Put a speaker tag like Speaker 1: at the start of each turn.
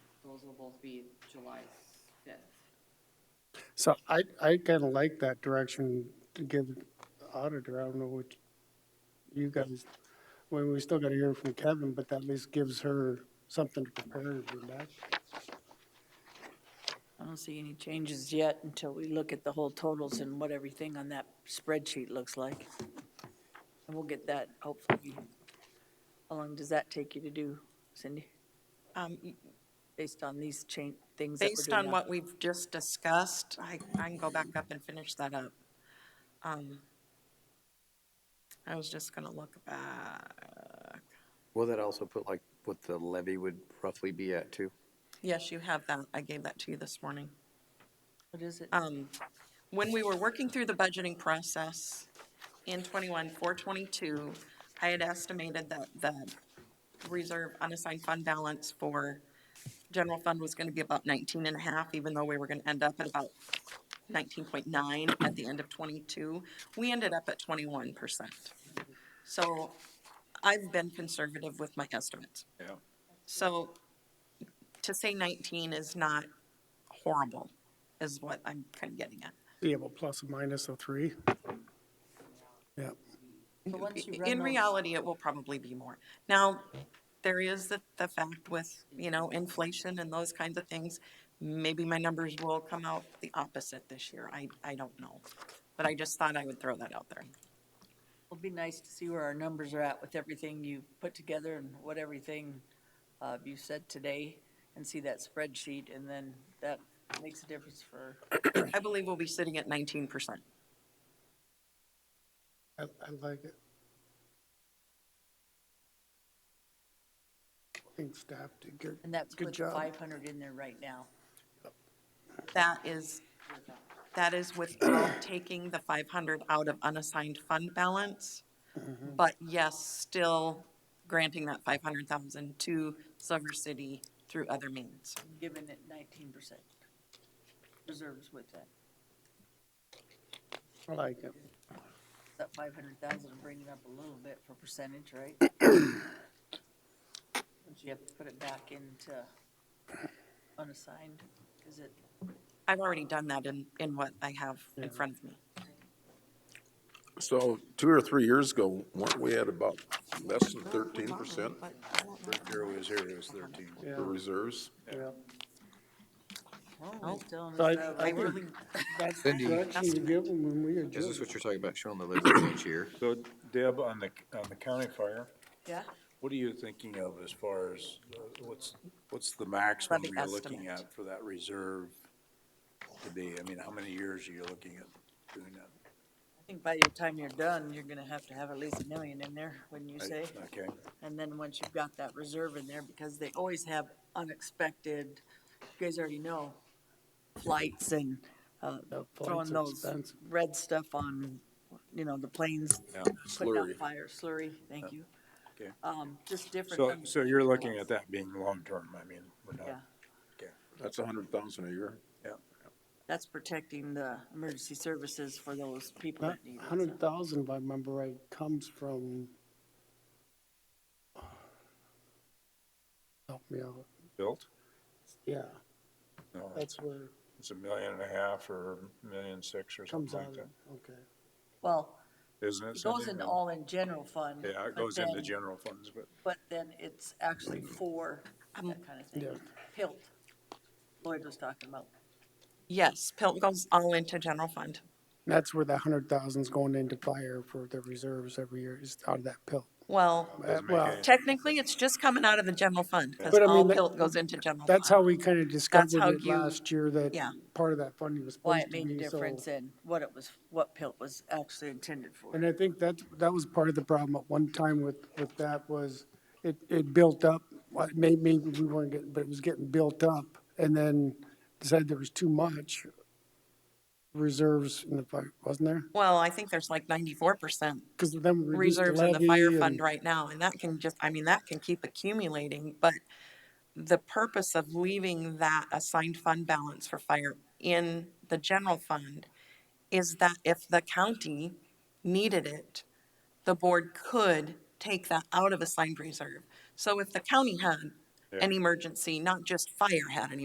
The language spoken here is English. Speaker 1: proposal will be July 5th.
Speaker 2: So I, I kind of like that direction to give the auditor. I don't know what you guys, well, we still got to hear from Kevin, but that at least gives her something to prepare for that.
Speaker 3: I don't see any changes yet until we look at the whole totals and what everything on that spreadsheet looks like. And we'll get that hopefully. How long does that take you to do, Cindy,
Speaker 4: Um, y-
Speaker 3: based on these chain, things that we're
Speaker 4: Based
Speaker 3: doing
Speaker 4: on
Speaker 3: now?
Speaker 4: what we've just discussed, I, I can go back up and finish that up. Um, I was just gonna look back.
Speaker 5: Will that also put like what the levy would roughly be at too?
Speaker 4: Yes, you have that. I gave that to you this morning.
Speaker 3: What is it?
Speaker 4: um, when we were working through the budgeting process in twenty-one, for twenty-two, I had estimated that the reserve unassigned fund balance for general fund was gonna be about nineteen and a half, even though we were gonna end up at about nineteen point nine at the end of twenty-two. We ended up at twenty-one percent. So I've been conservative with my estimates. Yeah. So to say nineteen is not horrible, is what I'm kind of getting at.
Speaker 2: Yeah, well, plus or minus a three. Yeah,
Speaker 3: But once you run
Speaker 4: In
Speaker 3: those-
Speaker 4: reality, it will probably be more. Now, there is the, the fact with, you know, inflation and those kinds of things, maybe my numbers will come out the opposite this year. I, I don't know. But I just thought I would throw that out there.
Speaker 3: It'll be nice to see where our numbers are at with everything you put together and what everything uh, you said today and see that spreadsheet and then that makes a difference for,
Speaker 4: I believe we'll be sitting at nineteen percent.
Speaker 2: I, I like it. I think staff did good.
Speaker 3: and that's
Speaker 2: Good
Speaker 3: with
Speaker 2: job.
Speaker 3: 500 in there right now.
Speaker 4: That is, that is without taking the five hundred out of unassigned fund balance.
Speaker 2: Mm-hmm.
Speaker 4: But yes, still granting that five hundred thousand to Silver City through other means.
Speaker 3: given it nineteen percent reserves with that.
Speaker 2: I like it.
Speaker 3: That five hundred thousand, bring it up a little bit for percentage, right? But you have to put it back into unassigned, is it,
Speaker 4: I've already done that in, in what I have in front of me.
Speaker 6: So two or three years ago, weren't we at about less than thirteen percent
Speaker 7: Here it was, here it was thirteen.
Speaker 2: Yeah,
Speaker 6: for reserves?
Speaker 2: yeah.
Speaker 3: oh, it's telling us
Speaker 2: So I-
Speaker 3: that
Speaker 2: I
Speaker 3: we-
Speaker 2: think that's the
Speaker 5: Cindy.
Speaker 2: direction you give them when we
Speaker 5: Is this
Speaker 2: adjust.
Speaker 5: what you're talking about, showing the levy each year?
Speaker 7: So Deb, on the, on the county fire,
Speaker 3: Yeah,
Speaker 7: what are you thinking of as far as, uh, what's, what's the maximum
Speaker 4: Levy
Speaker 7: you're looking
Speaker 4: estimate.
Speaker 7: at for that reserve to be? I mean, how many years are you looking at doing that?
Speaker 3: I think by the time you're done, you're gonna have to have at least a million in there, wouldn't you say?
Speaker 7: Okay,
Speaker 3: And then once you've got that reserve in there, because they always have unexpected, you guys already know, flights and, uh,
Speaker 2: Yeah,
Speaker 3: throwing
Speaker 2: flights are
Speaker 3: those
Speaker 2: expensive.
Speaker 3: red stuff on, you know, the planes,
Speaker 7: yeah,
Speaker 3: putting out
Speaker 7: slurry.
Speaker 3: fire, slurry, thank you.
Speaker 7: okay.
Speaker 3: Um, just different.
Speaker 7: So,
Speaker 3: things.
Speaker 7: so you're looking at that being long-term, I mean, we're
Speaker 3: Yeah,
Speaker 7: not, okay,
Speaker 6: That's a hundred thousand a year.
Speaker 7: yeah.
Speaker 3: that's protecting the emergency services for those people
Speaker 2: That
Speaker 3: that need it.
Speaker 2: hundred thousand, if I remember right, comes from. Help me out.
Speaker 7: Built?
Speaker 2: Yeah,
Speaker 7: No,
Speaker 2: that's where
Speaker 7: it's a million and a half or million six or
Speaker 2: it comes
Speaker 7: something
Speaker 2: out
Speaker 7: like
Speaker 2: of,
Speaker 7: that,
Speaker 2: okay.
Speaker 3: Well,
Speaker 7: isn't it?
Speaker 3: it goes
Speaker 7: Cindy?
Speaker 3: into all in general fund.
Speaker 7: Yeah, it
Speaker 3: but
Speaker 7: goes into
Speaker 3: then-
Speaker 7: general funds, but.
Speaker 3: But then it's actually for that kind of thing.
Speaker 2: Um, Yeah.
Speaker 3: Pilt, Lloyd was talking about.
Speaker 4: Yes, Pilt goes all into general fund.
Speaker 2: That's where the hundred thousand's going into fire for the reserves every year, is out of that pill.
Speaker 4: Well,
Speaker 2: Uh, Well,
Speaker 4: technically, it's just coming out of the general fund, because
Speaker 2: But I mean,
Speaker 4: all
Speaker 2: that-
Speaker 4: Pilt goes into general
Speaker 2: that's how
Speaker 4: fund.
Speaker 2: we kind of discovered
Speaker 4: how
Speaker 2: it
Speaker 4: you-
Speaker 2: last year, that
Speaker 4: yeah.
Speaker 2: part of that funding was
Speaker 3: why
Speaker 2: supposed to be,
Speaker 3: it
Speaker 2: so.
Speaker 3: made a difference and what it was, what pilt was actually intended for.
Speaker 2: And I think that, that was part of the problem at one time with, with that was it, it built up, what- may- maybe we weren't getting, but it was getting built up. And then decided there was too much reserves in the fire, wasn't there?
Speaker 4: Well, I think there's like ninety-four percent
Speaker 2: Because then we reduced the
Speaker 4: reserves in the
Speaker 2: levy.
Speaker 4: fire
Speaker 2: and-
Speaker 4: fund right now, and that can just, I mean, that can keep accumulating, but the purpose of leaving that assigned fund balance for fire in the general fund is that if the county needed it, the board could take that out of assigned reserve. So if the county had an emergency, not just fire had an